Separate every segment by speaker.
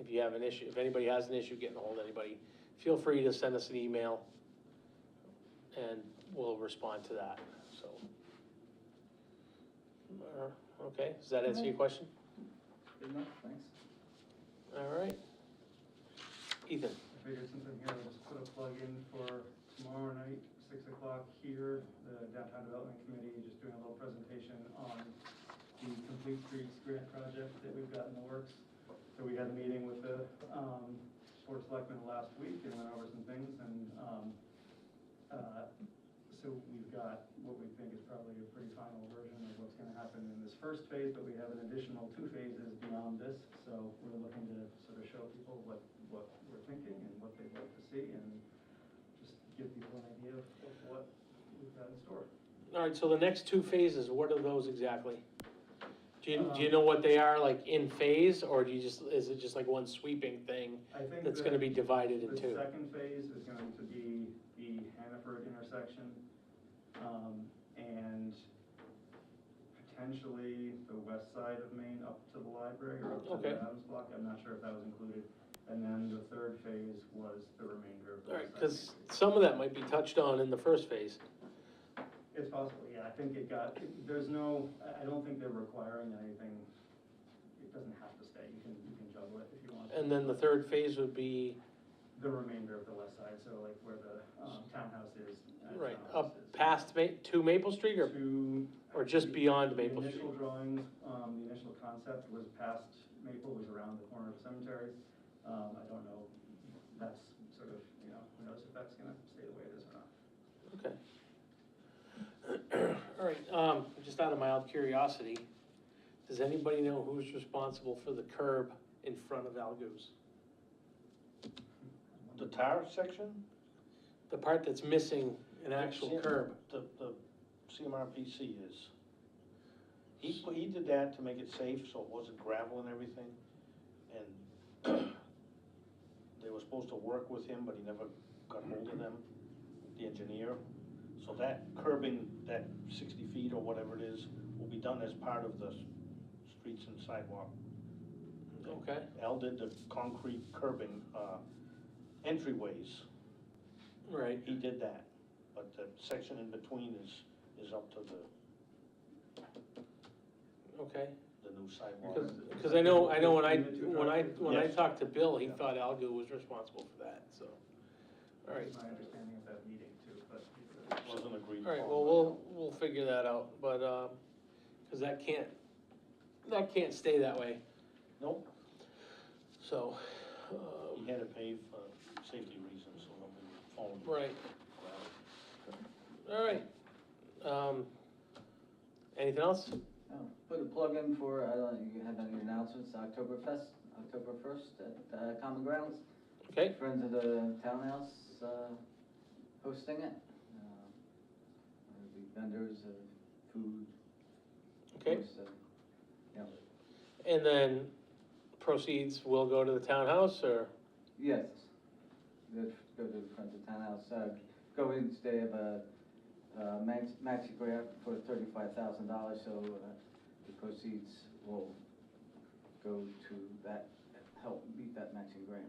Speaker 1: if you have an issue, if anybody has an issue getting ahold of anybody, feel free to send us an email, and we'll respond to that, so. Uh, Okay, does that answer your question?
Speaker 2: Good enough, thanks.
Speaker 1: All right. Ethan,
Speaker 2: I figured since I'm here, I'll just put a plug in for tomorrow night, six o'clock here, the Downtown Development Committee, just doing a little presentation on the Complete Streets Grant Project that we've got in the works. So we had a meeting with the, um, Board of Selectmen last week and went over some things and, um, uh, so we've got what we think is probably a pretty final version of what's gonna happen in this first phase, but we have an additional two phases beyond this. So we're looking to sort of show people what, what we're thinking and what they'd like to see and just give people an idea of of what we've got in store.
Speaker 1: all right, so the next two phases, what are those exactly? Do you, do you know what they are, like in phase, or do you just, is it just like one sweeping thing
Speaker 2: I think
Speaker 1: that's gonna
Speaker 2: that
Speaker 1: be divided in
Speaker 2: The
Speaker 1: two?
Speaker 2: second phase is going to be the Hannaford intersection, um, and potentially the west side of Main up to the library or up to
Speaker 1: Okay.
Speaker 2: the Adams block, I'm not sure if that was included. And then the third phase was the remainder of the
Speaker 1: All
Speaker 2: west
Speaker 1: right,
Speaker 2: side.
Speaker 1: because some of that might be touched on in the first phase.
Speaker 2: It's possible, yeah, I think it got, there's no, I, I don't think they're requiring anything, it doesn't have to stay, you can, you can juggle it if you want.
Speaker 1: And then the third phase would be,
Speaker 2: The remainder of the west side, so like where the, um, townhouse is. uh,
Speaker 1: right,
Speaker 2: townhouse
Speaker 1: up
Speaker 2: is.
Speaker 1: past Ma, to Maple Street or,
Speaker 2: to.
Speaker 1: or just beyond
Speaker 2: The
Speaker 1: Maple Street?
Speaker 2: initial drawings, um, the initial concept was past Maple, was around the corner of the cemetery. Um, I don't know, that's sort of, you know, who knows if that's gonna stay the way it is or not.
Speaker 1: Okay. All right, um, just out of mild curiosity, does anybody know who's responsible for the curb in front of Algo's?
Speaker 3: The tire section,
Speaker 1: The part that's missing an actual
Speaker 3: Yeah.
Speaker 1: curb?
Speaker 3: the, the CMRPC is. He, put- he did that to make it safe, so it wasn't gravel and everything, and they were supposed to work with him, but he never got hold of them, the engineer. So that curbing, that sixty feet or whatever it is, will be done as part of the s- streets and sidewalk.
Speaker 1: Okay,
Speaker 3: Al did the concrete curbing, uh, entryways.
Speaker 1: right,
Speaker 3: He did that, but the section in between is, is up to the,
Speaker 1: okay.
Speaker 3: the new sidewalk.
Speaker 1: Because, because I know, I know when I,
Speaker 2: Between the two
Speaker 1: when I,
Speaker 2: driveways?
Speaker 1: when I
Speaker 3: Yes.
Speaker 1: talked to Bill, he
Speaker 2: Yeah.
Speaker 1: thought Algo was responsible for that, so. All right,
Speaker 2: That's My understanding of that meeting too, but.
Speaker 3: Wasn't agreed
Speaker 1: all right,
Speaker 3: upon.
Speaker 1: well, we'll, we'll figure that out, but, um, because that can't, that can't stay that way,
Speaker 3: Nope,
Speaker 1: so,
Speaker 3: he
Speaker 1: um,
Speaker 3: had to pay for safety reasons, so nobody would fall. in
Speaker 1: right.
Speaker 3: ground.
Speaker 1: All right. Um, anything else?
Speaker 4: Oh, Put a plug in for, I don't know, you have any announcements, Oktoberfest, October first at uh, Common Grounds.
Speaker 1: Okay,
Speaker 4: Friends of the Townhouse uh, hosting it. Uh, There'll be vendors of food.
Speaker 1: okay.
Speaker 4: most of- Yeah,
Speaker 1: And then proceeds will go to the townhouse or,
Speaker 4: yes. Go go to the Friends of Townhouse, uh, go in, they have a uh, max, maxi grant for thirty-five thousand dollars, so uh, the proceeds will go to that, help meet that matching grant.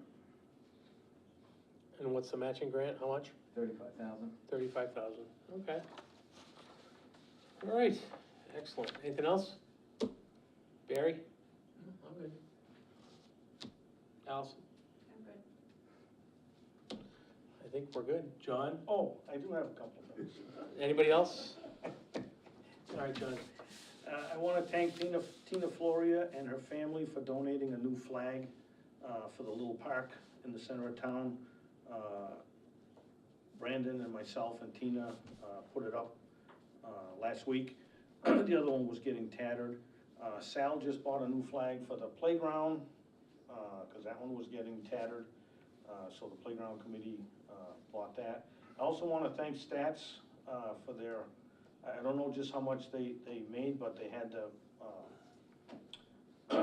Speaker 1: and what's the matching grant? How much?
Speaker 4: Thirty-five thousand?
Speaker 1: Thirty-five thousand. Okay. All right, excellent. Anything else? Barry? I'm good. Allison?
Speaker 5: I'm good.
Speaker 1: I think we're good. John?
Speaker 3: Oh, I do have a couple things.
Speaker 1: Anybody else? All right, John.
Speaker 3: Uh, I wanna thank Tina, Tina Floria and her family for donating a new flag, uh, for the little park in the center of town. Uh, Brandon and myself and Tina, uh, put it up, uh, last week. The other one was getting tattered. Uh, Sal just bought a new flag for the playground, uh, cause that one was getting tattered. Uh, so the playground committee, uh, bought that. I also wanna thank Stats, uh, for their I I don't know just how much they, they made, but they had the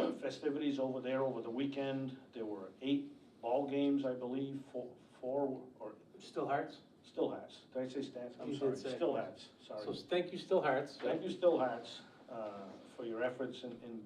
Speaker 3: uh, festivities over there over the weekend. There were eight ball games, I believe, four, four, or,
Speaker 1: Still Hearts?
Speaker 3: Still Hats. Did I say Stats?
Speaker 1: You
Speaker 3: I'm
Speaker 1: did
Speaker 3: sorry,
Speaker 1: say-
Speaker 3: Still Hats,
Speaker 1: So
Speaker 3: sorry.
Speaker 1: thank you, Still Hearts.
Speaker 3: Thank you, Still Hats, uh, for your efforts in, in